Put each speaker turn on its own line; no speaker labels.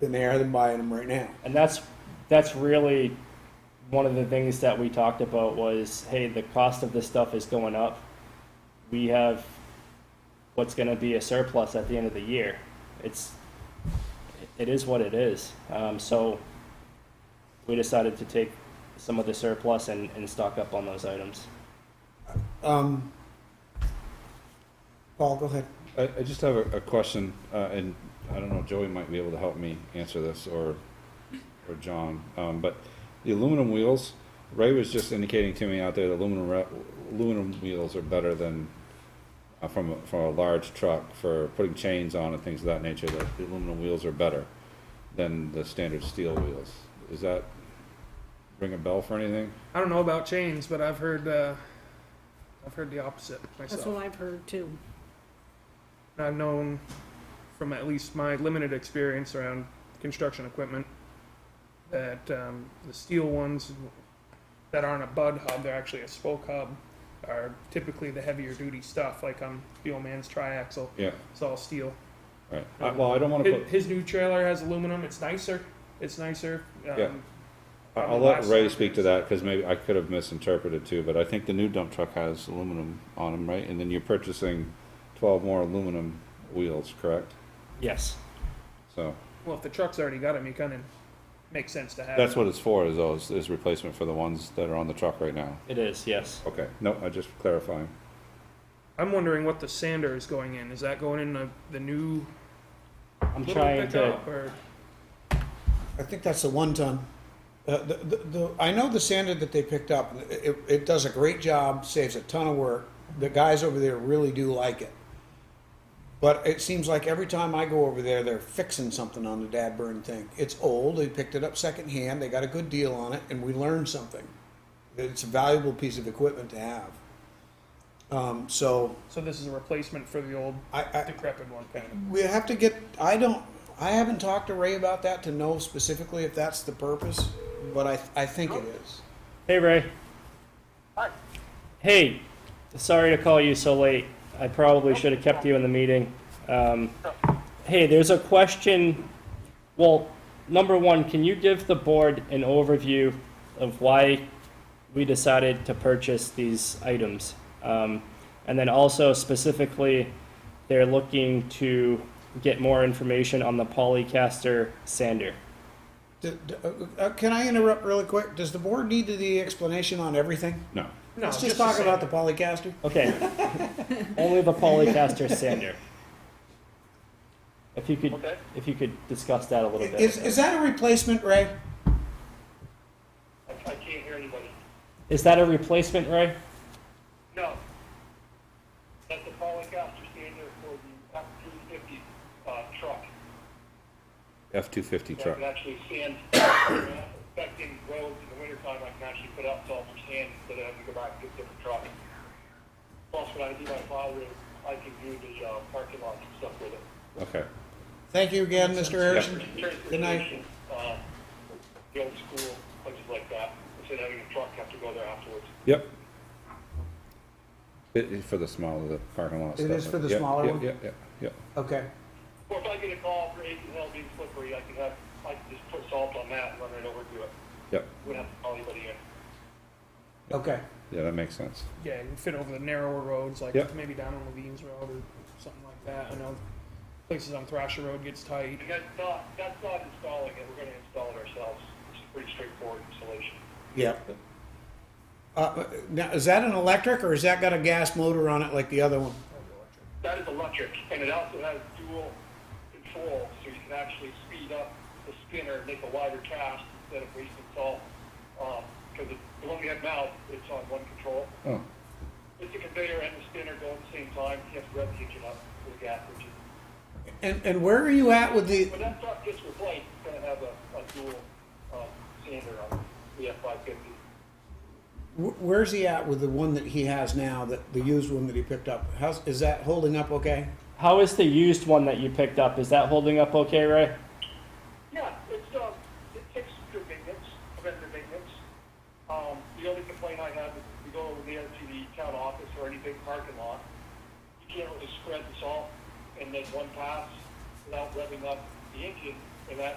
than they are than buying them right now.
And that's, that's really one of the things that we talked about was, hey, the cost of this stuff is going up. We have what's gonna be a surplus at the end of the year. It's, it is what it is. Um, so we decided to take some of the surplus and, and stock up on those items.
Um, Paul, go ahead.
I, I just have a, a question, uh, and I don't know, Joey might be able to help me answer this, or, or John, um, but the aluminum wheels, Ray was just indicating to me out there that aluminum, re- aluminum wheels are better than, uh, from, a- from a large truck for putting chains on and things of that nature, that the aluminum wheels are better than the standard steel wheels. Is that ring a bell for anything?
I don't know about chains, but I've heard uh, I've heard the opposite
That's
myself.
what I've heard too.
I've known from at least my limited experience around construction equipment that um, the steel ones that aren't a bud hub, they're actually a spoke hub, are typically the heavier duty stuff. Like on the old man's triaxle,
Yeah,
it's all steel.
right, I- well, I don't wanna
His,
put,
his new trailer has aluminum. It's nicer. It's nicer. Um,
Yeah. I- I'll let Ray speak to that, cause maybe I could have misinterpreted too, but I think the new dump truck has aluminum on them, right? And then you're purchasing twelve more aluminum wheels, correct?
Yes.
So,
Well, if the truck's already got them, you kind of makes sense to have.
that's
it.
what it's for, is those, is replacement for the ones that are on the truck right now.
It is, yes.
Okay, no, I just clarifying.
I'm wondering what the sander is going in. Is that going in the, the new
I'm
little
trying to,
pickup or
I think that's the one ton. Uh, the, the, the, I know the sander that they picked up, it, it does a great job, saves a ton of work. The guys over there really do like it. But it seems like every time I go over there, they're fixing something on the Dadburn thing. It's old, they picked it up secondhand, they got a good deal on it, and we learned something. It's a valuable piece of equipment to have. Um, so
so this is a replacement for the old
I, I,
decrepit one kind of.
we have to get, I don't, I haven't talked to Ray about that to know specifically if that's the purpose, but I, I think it is.
hey, Ray.
Hi.
Hey, sorry to call you so late. I probably should have kept you in the meeting. Um, hey, there's a question. Well, number one, can you give the board an overview of why we decided to purchase these items? Um, and then also specifically, they're looking to get more information on the Polycaster sander.
D- d- uh, uh, Can I interrupt really quick? Does the board need the explanation on everything?
No,
No,
Let's just talk
the
about the
sander.
Polycaster.
Okay. Only the polycaster sander. If you could,
Okay.
if you could discuss that a little bit.
Is, is that a replacement, Ray?
I, I can't hear anybody.
Is that a replacement, Ray?
No. That's the Polycaster standard for the F two fifty, uh, truck.
F two fifty
That
truck,
can actually sand, affecting roads in the wintertime, I can actually put out salt for sand instead of having to go back and get different trucks. Plus, when I do my plow rig, I can do the, uh, parking lots and stuff with it.
okay.
Thank you again, Mr. Harrison. Good night.
Transportation, uh, The old school, places like that, instead of having a truck have to go there afterwards.
Yep. It is for the smaller, the parking lot
It
stuff.
is for the
Yeah,
smaller
yeah,
one?
Yeah, yeah, yeah.
Okay.
Or if I get a call for Aiken Hill being slippery, I can have, I can just put salt on that and run right over to it.
Yep.
Wouldn't have to call anybody in.
Okay.
Yeah, that makes sense.
Yeah, you can fit over the narrower roads, like
Yep.
maybe down on Levine's Road or something like that. I know places on Thrasher Road gets tight.
And that's not, that's not installing it, we're gonna install it ourselves. It's a pretty straightforward installation.
Yeah. Uh, now, is that an electric or has that got a gas motor on it like the other one?
That is electric, and it also has dual control, so you can actually speed up the spinner, make a wider cast instead of wasting salt. Um, cause it- the one we have now, it's on one control.
Oh,
It's a conveyor and the spinner go at the same time, you have to rev the engine up with the gas engine.
And, and where are you at with the,
When that truck gets replaced, it's gonna have a, a dual, um, sander on it, the F five fifty.
wh- where's he at with the one that he has now, that, the used one that he picked up? How's, is that holding up okay?
How is the used one that you picked up? Is that holding up okay, Ray?
Yeah, it's, uh, it takes good maintenance, preventive maintenance. Um, the only complaint I have is if you go over there to the town office or any big parking lot, you can't really spread the salt and make one pass without revving up the engine, and that